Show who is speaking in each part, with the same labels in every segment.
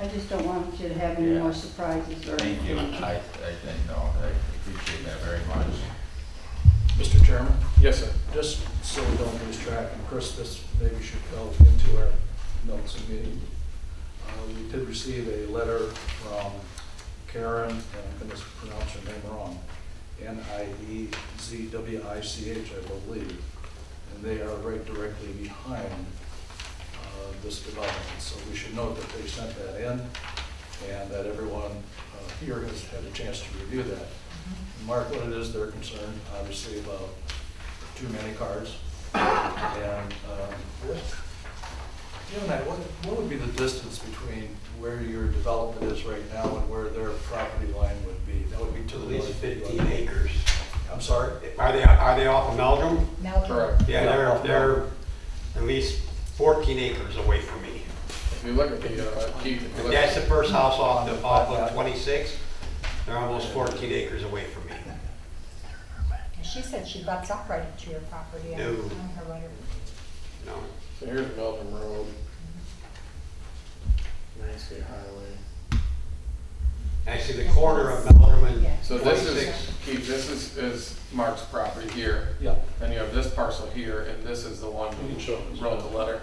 Speaker 1: I just don't want you to have any
Speaker 2: Yeah.
Speaker 1: more surprises or.
Speaker 2: Thank you. I, I think, no, I appreciate that very much.
Speaker 3: Mr. Chairman,
Speaker 4: Yes, sir.
Speaker 3: just so we don't lose track, and Chris, this maybe should go into our notes and meeting. Uh, We did receive a letter from Karen, and I'm going to pronounce her name wrong, N-I-E-Z-W-I-C-H, I believe. And they are right directly behind uh, this development, so we should note that they sent that in, and that everyone uh, here has had a chance to review that. Mark, what it is they're concerned, obviously, about too many cars. And, um, what, you and I, what, what would be the distance between where your development is right now and where their property line would be? That would be to
Speaker 5: At
Speaker 3: the
Speaker 5: least
Speaker 3: north.
Speaker 5: fifteen acres.
Speaker 3: I'm sorry?
Speaker 5: Are they, are they off of Meldrum?
Speaker 3: Correct.
Speaker 5: Yeah, they're, they're at least fourteen acres away from me.
Speaker 4: If you look at the, uh, Keith, if you look
Speaker 5: That's the
Speaker 4: at,
Speaker 5: first house off the, off of twenty-six, they're almost fourteen acres away from me.
Speaker 6: She said she butts up right into your property on
Speaker 5: No.
Speaker 6: on her right of-
Speaker 5: You know,
Speaker 4: so here's Melton Road. Main Street Highway.
Speaker 5: actually, the corner of Meldrum and
Speaker 6: Yeah.
Speaker 4: So this is,
Speaker 5: twenty-six.
Speaker 4: Keith, this is, is Mark's property here.
Speaker 3: Yeah.
Speaker 4: Then you have this parcel here, and this is the one
Speaker 3: We can show
Speaker 4: who
Speaker 3: this.
Speaker 4: wrote the letter.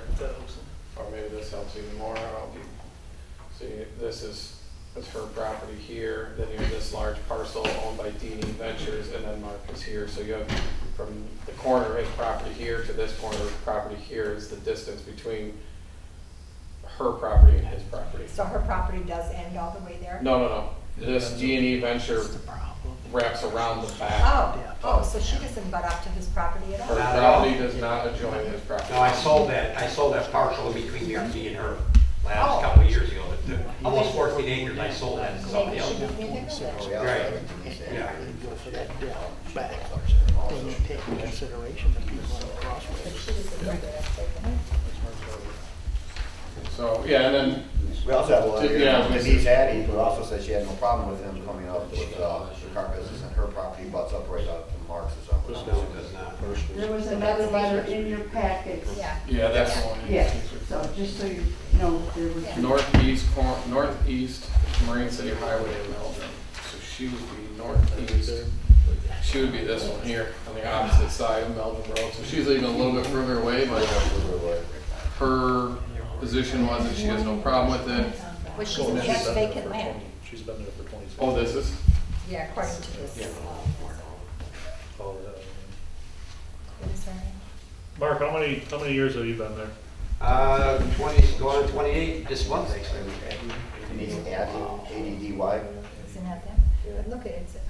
Speaker 4: Or maybe this helps even more. I don't know. See, this is, that's her property here, then you have this large parcel owned by Dini Ventures, and then Mark is here. So you have from the corner of his property here to this corner of his property here is the distance between her property and his property.
Speaker 6: So her property does end all the way there?
Speaker 4: No, no, no. This G and E venture wraps around the back.
Speaker 6: Oh, oh, so she doesn't butt up to his property at
Speaker 1: Oh.
Speaker 4: Her
Speaker 6: all?
Speaker 5: Not at all.
Speaker 4: property does not adjoin his property.
Speaker 5: No, I sold that, I sold that parcel in between me me and her last
Speaker 6: Oh.
Speaker 5: couple of years ago. The- the- Almost fourteen acres, I sold that to somebody
Speaker 6: Maybe she
Speaker 5: else.
Speaker 6: didn't even know that.
Speaker 5: Right, yeah.
Speaker 7: go for that down back, then you take into consideration the people on the crossway.
Speaker 6: If she doesn't know that, that's okay.
Speaker 4: So, yeah, and then
Speaker 8: We also have a letter
Speaker 4: Yeah,
Speaker 8: here,
Speaker 4: we-
Speaker 8: Denise Addy, who also said she had no problem with him coming up with uh, the car business, and her property butts up right up to Marx's. up.
Speaker 5: No, it does not.
Speaker 1: There was another letter in your packets.
Speaker 6: Yeah.
Speaker 4: Yeah, that's the one.
Speaker 1: Yes, so just so you know, there was.
Speaker 4: Northeast, cor- northeast Marine City Highway in Meldrum. So she would be northeast, she would be this one here on the opposite side of Meldrum Road. So she's even a little bit further away, but her position was that she has no problem with it.
Speaker 6: Well, she's
Speaker 3: She's
Speaker 6: in that
Speaker 3: been there for
Speaker 6: vacant land,
Speaker 3: 20 She's been there for twenty-six.
Speaker 4: Oh, this is,
Speaker 6: yeah, according to this.
Speaker 3: Oh, yeah.
Speaker 6: What is her name?
Speaker 9: Mark, how many, how many years have you been there?
Speaker 5: Uh, twenty, going to twenty-eight this month, actually.
Speaker 8: Denise Addy, A D D Y.
Speaker 6: Is it not that? But look, at it, it's- it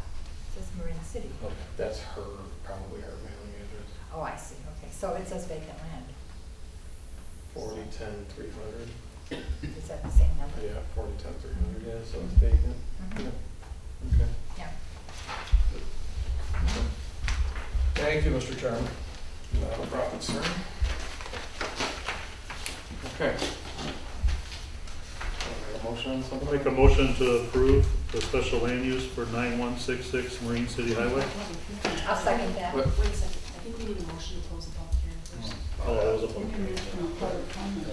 Speaker 6: says Marine City.
Speaker 4: that's her, probably her mailing address.
Speaker 6: Oh, I see, okay, so it says vacant land.
Speaker 4: Forty, ten, three hundred.
Speaker 6: Is that the same number?
Speaker 4: Yeah, forty, ten, three hundred, yeah, so it's vacant.
Speaker 6: Mhm.
Speaker 4: Yeah. Okay.
Speaker 6: Yeah.
Speaker 3: Thank you, Mr. Chairman.
Speaker 4: Not a problem, sir. Okay. Make a Motion, on
Speaker 9: I'll
Speaker 4: something?
Speaker 9: Make a motion to approve the special land use for 9166 Marine City Highway.
Speaker 6: I'll second that.
Speaker 4: What-
Speaker 10: Wait a second, I think we need a motion to close the public hearing first.
Speaker 9: Oh, that was a public hearing.
Speaker 1: International public comment.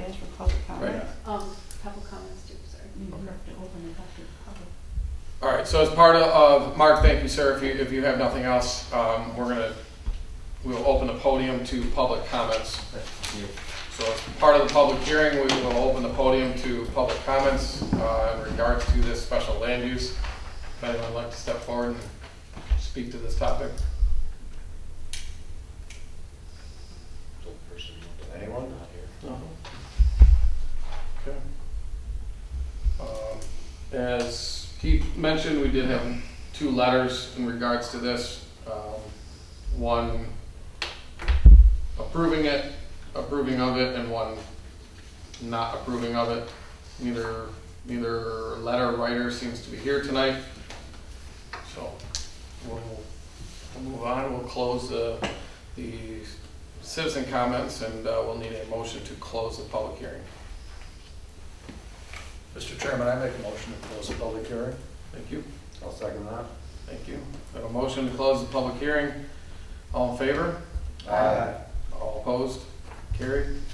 Speaker 1: Right, that's for public comment.
Speaker 4: Right.
Speaker 10: Um, couple comments too, sorry.
Speaker 1: You have to open it up to public.
Speaker 4: All right, so as part of- of, Mark, thank you, sir, if you, if you have nothing else, um, we're gonna, we'll open the podium to public comments. So as part of the public hearing, we will open the podium to public comments, uh, in regards to this special land use. If anyone would like to step forward and speak to this topic?
Speaker 8: Anyone?
Speaker 4: Okay. Um, As he mentioned, we did have two letters in regards to this. Um, One approving it, approving of it, and one not approving of it. Neither, neither letter writer seems to be here tonight. So we'll we'll move on, we'll close the, the citizen comments, and uh, we'll need a motion to close the public hearing.
Speaker 3: Mr. Chairman, I make a motion to close the public hearing.
Speaker 4: Thank you.
Speaker 8: I'll second that.
Speaker 4: Thank you. Have a motion to close the public hearing. All in favor?
Speaker 8: Aye.
Speaker 4: All opposed? Carried.